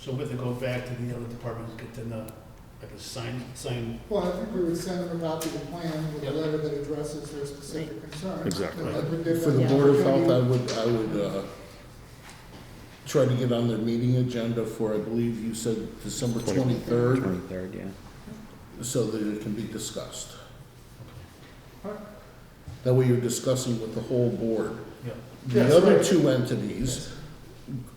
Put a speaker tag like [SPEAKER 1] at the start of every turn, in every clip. [SPEAKER 1] So we have to go back to the other departments, get them a, like a sign, sign,
[SPEAKER 2] Well, I think we would send them a copy of the plan with a
[SPEAKER 1] Yep.
[SPEAKER 2] letter that addresses their specific concerns.
[SPEAKER 3] Exactly.
[SPEAKER 2] And I would give
[SPEAKER 4] For the
[SPEAKER 2] them
[SPEAKER 4] Board of Health, I
[SPEAKER 2] opportunity-
[SPEAKER 4] would, I would uh, try to get on their meeting agenda for, I believe you said December 23rd,
[SPEAKER 5] Twenty-third, yeah.
[SPEAKER 4] so that it can be discussed.
[SPEAKER 2] Alright.
[SPEAKER 4] That way you're discussing with the whole board.
[SPEAKER 1] yeah.
[SPEAKER 2] Yes,
[SPEAKER 4] The other
[SPEAKER 2] right.
[SPEAKER 4] two entities,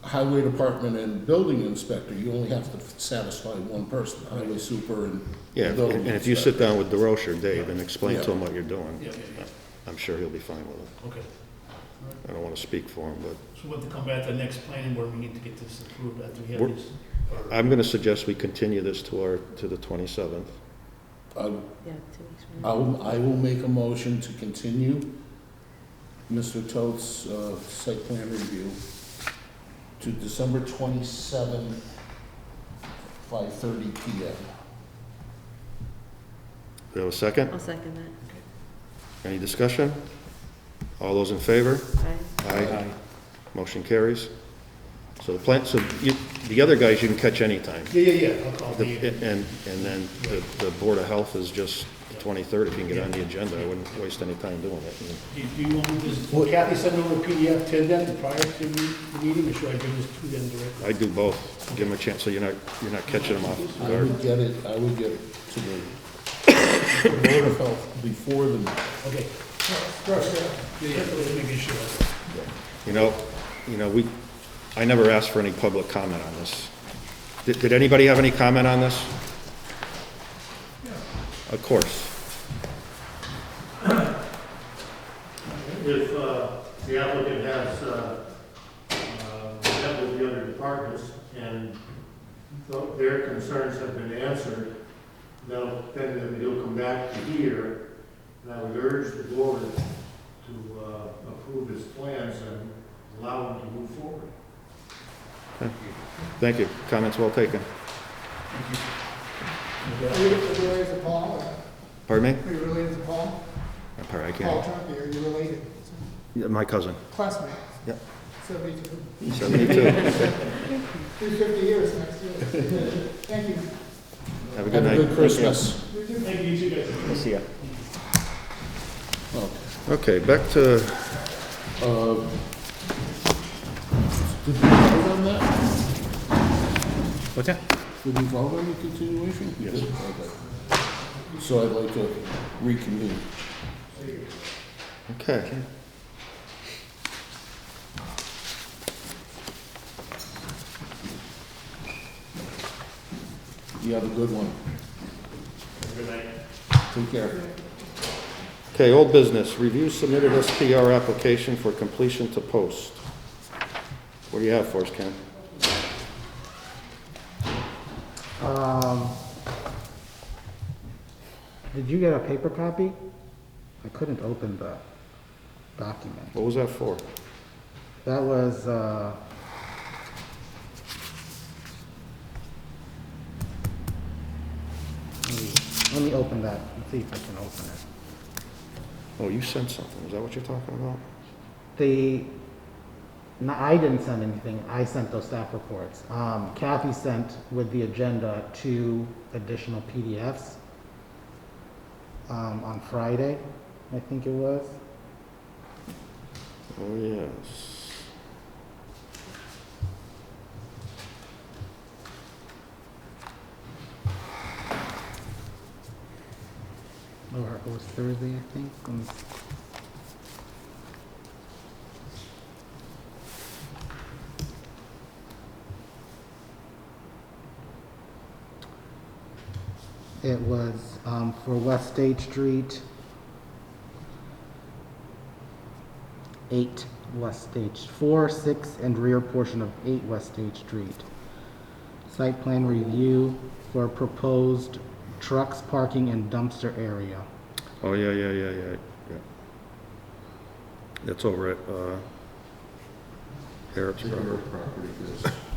[SPEAKER 4] Highway Department and Building Inspector, you only have to satisfy one person, Highway Super and
[SPEAKER 3] Yeah,
[SPEAKER 4] Building
[SPEAKER 3] and if you sit
[SPEAKER 4] Inspector.
[SPEAKER 3] down with DeRoche or Dave and explain to him what you're
[SPEAKER 1] Yeah,
[SPEAKER 3] doing,
[SPEAKER 1] yeah, yeah,
[SPEAKER 3] I'm sure he'll be fine with it.
[SPEAKER 1] okay.
[SPEAKER 3] I don't want to speak for him, but
[SPEAKER 1] So we'll have to come back to the next planning board, we need to get this approved after we have
[SPEAKER 3] We're-
[SPEAKER 1] this.
[SPEAKER 3] I'm going to suggest we continue this to our, to the 27th.
[SPEAKER 4] I-
[SPEAKER 6] Yeah, two weeks from
[SPEAKER 4] I will, I will make a motion to continue Mr. Toth's uh, site plan review to December 27th, 5:30 PM.
[SPEAKER 3] Do you have a second?
[SPEAKER 6] now. I'll second that.
[SPEAKER 3] Any discussion? All those in favor?
[SPEAKER 6] Aye.
[SPEAKER 3] Aye. Motion carries. So the plant, so you, the other guys you can catch anytime.
[SPEAKER 1] Yeah, yeah, yeah, I'll call
[SPEAKER 3] The-
[SPEAKER 1] the,
[SPEAKER 3] And, and then the, the Board of Health is just the 23rd, if you can get on the agenda. I wouldn't waste any time doing it.
[SPEAKER 1] do do you want me to, just- will Kathy send over a PDF to them prior to the meeting, or should I give this to them directly?
[SPEAKER 3] I do both. Give them a chance, so you're not, you're not catching them off
[SPEAKER 4] I
[SPEAKER 3] guard.
[SPEAKER 4] would get it, I would get it to the Board of Health before the,
[SPEAKER 1] Okay,
[SPEAKER 2] Rush that.
[SPEAKER 1] yeah, yeah, let me make sure.
[SPEAKER 3] You know, you know, we, I never asked for any public comment on this. Did, did anybody have any comment on this? Of course.
[SPEAKER 7] If uh, the applicant has, uh, uh, met with the other departments and tho- their concerns have been answered, they'll, then he'll come back to here, and I would urge the board to uh, approve his plans and allow him to move forward.
[SPEAKER 3] Thank you. Comments well taken.
[SPEAKER 2] Are you are you related to Paul?
[SPEAKER 3] Pardon me?
[SPEAKER 2] Are you related to Paul?
[SPEAKER 3] I'm sorry, I
[SPEAKER 2] Paul
[SPEAKER 3] can't.
[SPEAKER 2] Trumpy, are you related?
[SPEAKER 3] Yeah, My cousin,
[SPEAKER 2] Classmate?
[SPEAKER 3] Yep.
[SPEAKER 2] Seventy-two.
[SPEAKER 3] 72.
[SPEAKER 2] Be fifty years next year. Thank you.
[SPEAKER 3] Have a good
[SPEAKER 4] have a
[SPEAKER 3] night.
[SPEAKER 4] good Christmas.
[SPEAKER 2] You too.
[SPEAKER 1] Thank you, you guys.
[SPEAKER 5] See ya.
[SPEAKER 4] Okay.
[SPEAKER 3] Okay, back to,
[SPEAKER 4] Uh, Did we vote on that?
[SPEAKER 5] What's that?
[SPEAKER 4] Did we vote on the continuation? Yes. Okay. So I'd like to reconvene.
[SPEAKER 3] okay.
[SPEAKER 4] You have a good one.
[SPEAKER 1] Good night.
[SPEAKER 4] Take care.
[SPEAKER 3] Okay, old business, review submitted SPR application for completion to post. What do you have for us, Ken?
[SPEAKER 5] Um, Did you get a paper copy? I couldn't open the document.
[SPEAKER 3] What was that for?
[SPEAKER 5] That was, uh, let me- let me open that and see if I can open it.
[SPEAKER 3] Oh, you sent something, is that what you're talking about?
[SPEAKER 5] The, no, I didn't send anything, I sent those staff reports. Um, Kathy sent with the agenda two additional PDFs um, on Friday, I think it was.
[SPEAKER 3] Oh, yes.
[SPEAKER 5] Or it was oh, Thursday, I think. Let me see. It was um, for West State Street. Eight West Stage, four, six, and rear portion of eight West Stage Street. Site plan review for proposed trucks parking and dumpster area.
[SPEAKER 3] Oh, yeah, yeah, yeah, yeah, yeah. That's over at, uh, Harrop's Brothers.
[SPEAKER 4] Property is